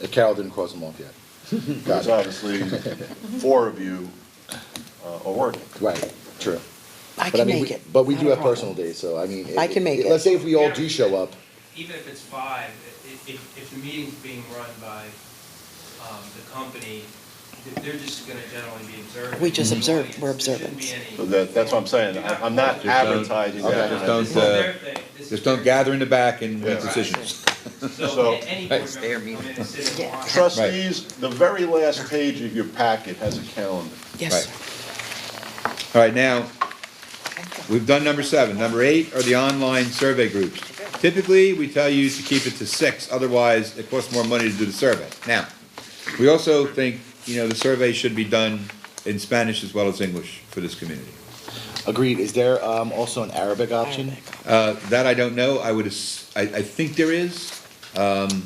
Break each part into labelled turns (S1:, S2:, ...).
S1: Uh, Carol didn't close them off yet. Got
S2: Because
S1: it.
S2: obviously, four of you uh, are working.
S1: Right, true.
S3: I
S1: But
S3: can
S1: mean,
S3: make
S1: we-
S3: it.
S1: But we
S3: Not
S1: do
S3: a
S1: have
S3: problem.
S1: personal days, so I mean.
S3: I can make it.
S1: Let's say if we all do show up,
S4: even if it's five, i- if, if the meeting's being run by um, the company, th- they're just gonna generally be observant.
S3: We just
S4: in the
S3: observe.
S4: audience.
S3: We're
S4: There shouldn't be
S3: observant.
S4: any-
S2: So that, that's what I'm saying, I- I'm not
S4: Just
S5: don't-
S2: advertising
S1: okay,
S2: that.
S1: just
S2: I'm
S4: This
S5: don't,
S4: is
S5: uh,
S4: their thing. This is
S5: Just don't
S4: their-
S5: gather in the back and make
S2: Yeah.
S5: decisions.
S4: So
S2: So-
S4: a- any board
S5: It's
S4: member
S5: their
S4: can come in and sit and watch.
S2: Trustees, the very last page of your packet has a calendar.
S3: Yes,
S5: Right.
S3: sir.
S5: All right, now,
S3: Thank you.
S5: We've done number seven. Number eight are the online survey groups. Typically, we tell you to keep it to six, otherwise it costs more money to do the survey. Now, we also think, you know, the survey should be done in Spanish as well as English for this community.
S1: agreed, is there um, also an Arabic option?
S3: Arabic.
S5: Uh, that I don't know, I would, as- I, I think there is,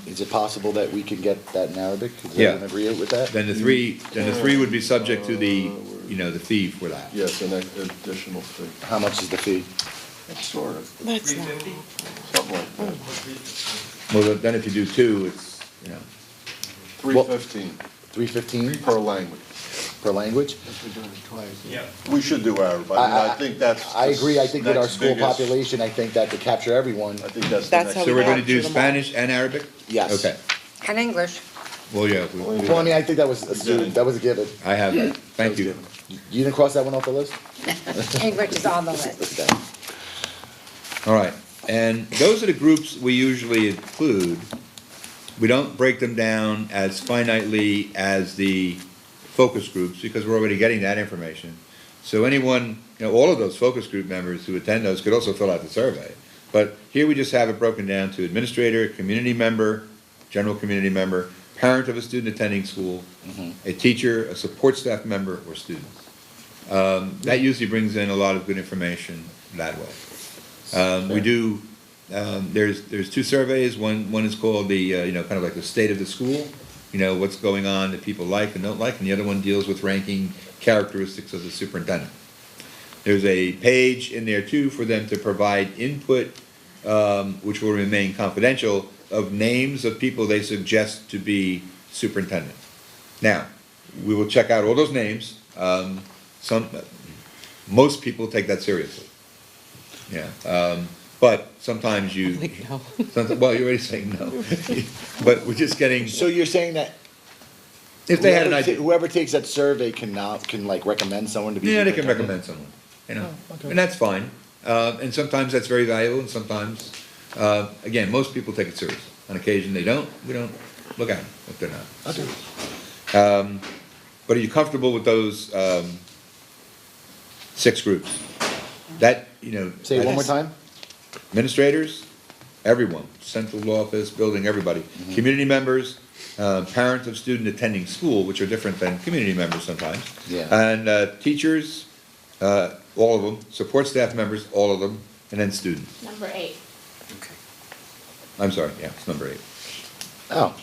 S1: Is it possible that we can get that in Arabic? Does
S5: Yeah.
S1: everyone agree with that?
S5: then the three, then the three would be subject to the, you know, the fee for that.
S2: Yes, an additional fee,
S1: How much is the fee?
S2: It's sort of,
S3: Let's
S4: Three
S3: not.
S4: fifty?
S2: something like that,
S5: Well, then if you do two, it's, you know,
S2: three fifteen
S1: Three fifteen
S2: per language.
S1: per language?
S4: Yep.
S2: We should do Arab, I mean, I think that's.
S1: I agree, I think with our
S2: that's
S1: school
S2: biggest-
S1: population, I think that to capture everyone,
S2: I think that's the
S3: That's
S2: next.
S3: how
S5: so we're gonna
S3: Capture
S5: do
S3: them all.
S5: Spanish and Arabic?
S1: Yes.
S5: Okay,
S6: And English.
S5: well, yeah, we- we-
S1: well, I mean, I think that was, assumed. that was a given.
S5: I have, that. thank you.
S1: You didn't cross that one off the list?
S6: English is on the list.
S1: Okay.
S5: All right, and those are the groups we usually include. We don't break them down as finitely as the focus groups, because we're already getting that information. So anyone, you know, all of those focus group members who attend those could also fill out the survey. But here we just have it broken down to administrator, community member, general community member, parent of a student attending school, a teacher, a support staff member, or students. Um, that usually brings in a lot of good information that way. Um, we do, um, there's, there's two surveys, one, one is called the, uh, you know, kind of like the state of the school, you know, what's going on that people like and don't like, and the other one deals with ranking characteristics of the superintendent. There's a page in there too for them to provide input, um, which will remain confidential, of names of people they suggest to be superintendent. Now, we will check out all those names, um, some, most people take that seriously. Yeah, um, but sometimes you,
S3: Like, no.
S5: sometimes, well, you're already saying no. But we're just getting,
S1: So you're saying that
S5: if they had an
S1: whoever ta-
S5: idea,
S1: Whoever takes that survey can now, can like recommend someone to be.
S5: yeah, they can recommend someone, you know, and that's fine. Uh, and sometimes that's very valuable and sometimes, uh, again, most people take it serious. On occasion, they don't, we don't look at them if they're not. Um,
S1: Okay.
S5: But are you comfortable with those, um, six groups? That, you know.
S1: Say it one more
S5: that's-
S1: time?
S5: administrators, everyone, central office, building, everybody.
S1: Mm-hmm.
S5: Community members, uh, parents of student attending school, which are different than community members sometimes.
S1: Yeah.
S5: And uh, teachers, uh, all of them, support staff members, all of them, and then students.
S7: Number eight.
S5: I'm sorry, yeah, it's number eight.
S1: Oh.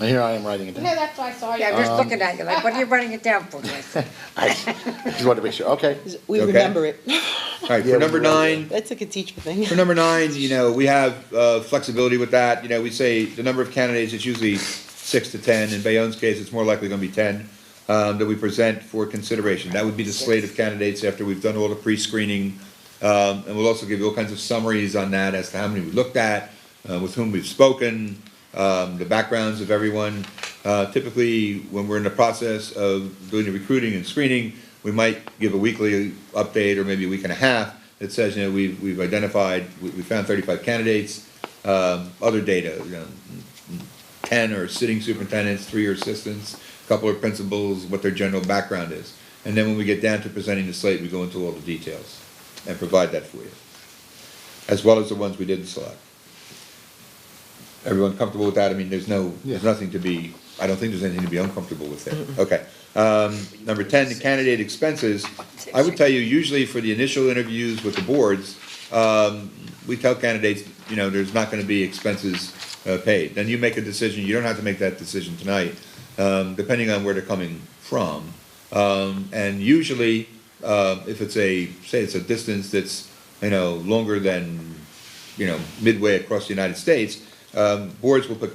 S1: And here I am writing it
S7: No,
S1: down.
S7: that's why I saw
S6: Yeah, I'm
S7: you.
S6: just looking at you like, what are you running it down for, Jason?
S1: I just wanted to make sure, okay.
S3: We
S5: Okay.
S3: remember it.
S5: All right,
S1: Yeah,
S5: for number
S1: we will, yeah.
S5: nine,
S3: That's like a teacher thing.
S5: For number nine, you know, we have uh, flexibility with that, you know, we say the number of candidates, it's usually six to ten, in Bayonne's case, it's more likely gonna be ten, um, that we present for consideration, that would be the slate of candidates after we've done all the pre-screening, um, and we'll also give you all kinds of summaries on that as to how many we looked at, uh, with whom we've spoken, um, the backgrounds of everyone. Uh, typically, when we're in the process of doing the recruiting and screening, we might give a weekly update or maybe a week and a half that says, you know, we've, we've identified, we, we found thirty-five candidates, um, other data, you know, ten are sitting superintendents, three are assistants, a couple are principals, what their general background is. And then when we get down to presenting the slate, we go into all the details and provide that for you, as well as the ones we didn't select. Everyone comfortable with that? I mean, there's no, there's nothing to be, I don't think there's anything to be uncomfortable with there. Okay. Um, number ten, the candidate expenses. I would tell you, usually for the initial interviews with the boards, um, we tell candidates, you know, there's not gonna be expenses, uh, paid. Then you make a decision, you don't have to make that decision tonight, um, depending on where they're coming from. Um, and usually, uh, if it's a, say it's a distance that's, you know, longer than you know, midway across the United States, um, boards will put